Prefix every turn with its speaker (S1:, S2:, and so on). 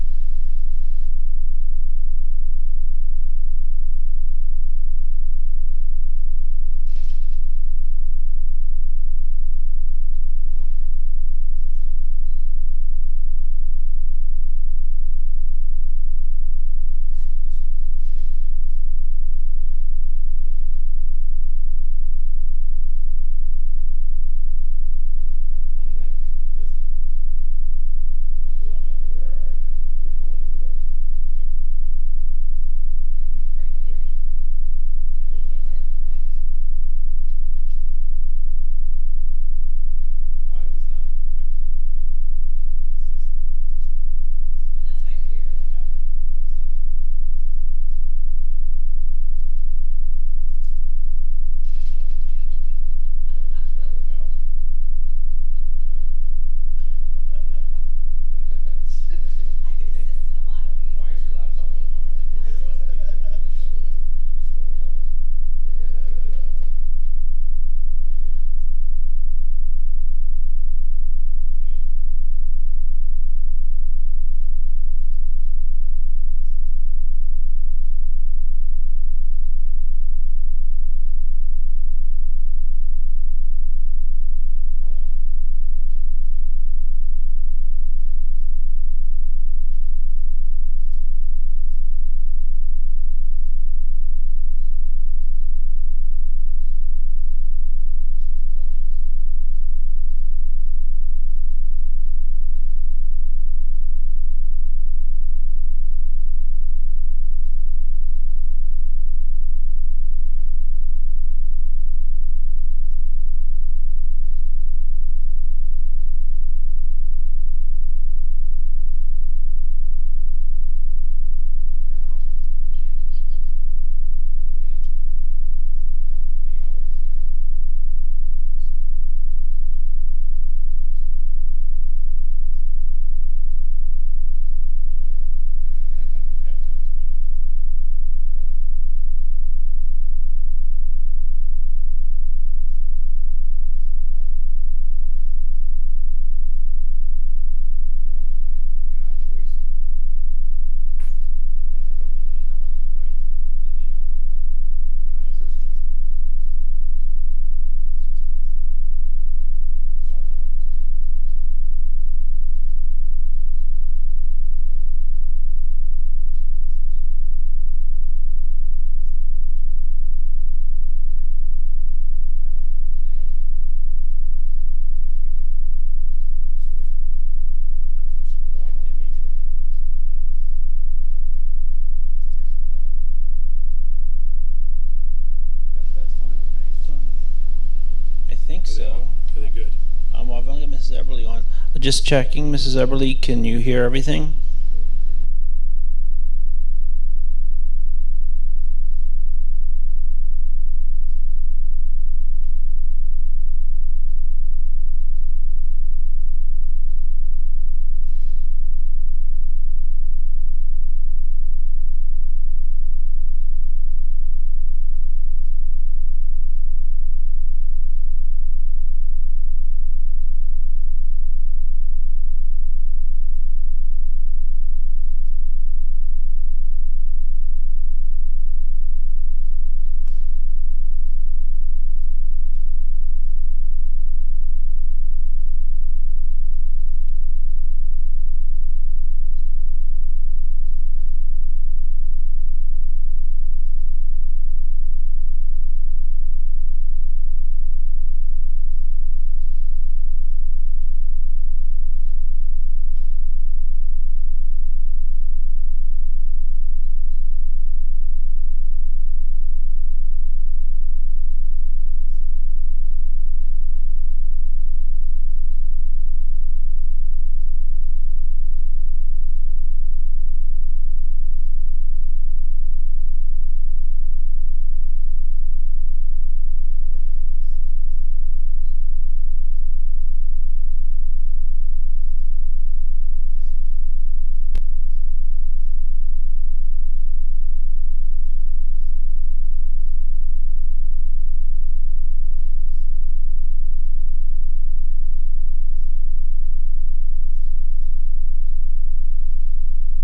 S1: Um, Just checking, Mrs. Eberly, can you hear everything?